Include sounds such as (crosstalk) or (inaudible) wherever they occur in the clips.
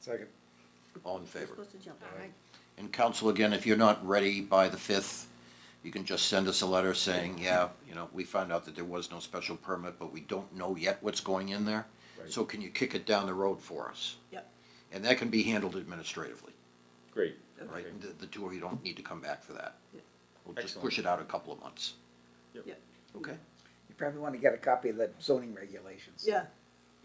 Second. All in favor? Supposed to jump. Aye. And council, again, if you're not ready by the fifth, you can just send us a letter saying, yeah, you know, we found out that there was no special permit, but we don't know yet what's going in there. Right. So can you kick it down the road for us? Yep. And that can be handled administratively, Great. right? Okay. The, the two of you don't need to come back for that. Yeah. We'll just push it out a couple of months. Yeah. Okay. You probably want to get a copy of the zoning regulations. Yeah,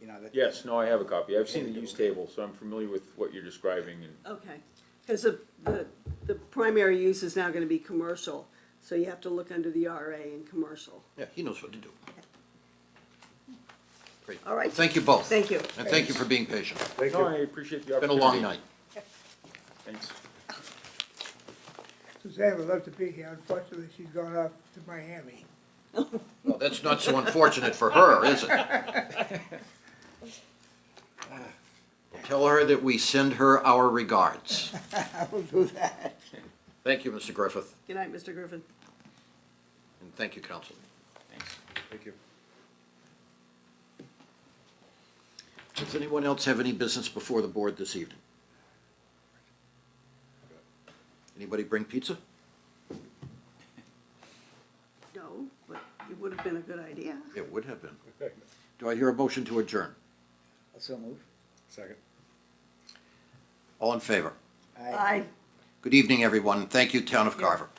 You know, that. Yes, no, I have a copy. I've seen the use table, so I'm familiar with what you're describing and, okay. Because the, the, the primary use is now gonna be commercial, so you have to look under the RA in commercial. Yeah, he knows what to do. Great. All right. Thank you both. Thank you. And thank you for being patient. thank no, I appreciate the Been a opportunity. long night. Thanks. Suzanne would love to be here, unfortunately, she's gone off to Miami. Well, that's not so unfortunate for her, is it? Tell her that we send her (laughs) our regards. I will do that. Thank you, Mr. Griffith, Good night, Mr. Griffin. and thank you, council. Thanks. Thank you. Does anyone else have any business before the board this evening? Anybody bring pizza? No, but it would have been a good idea. It would have been. Do I hear a motion to adjourn? So Oh, move. Second. All in favor? Aye. Good evening, everyone. Thank you, Town of Carver.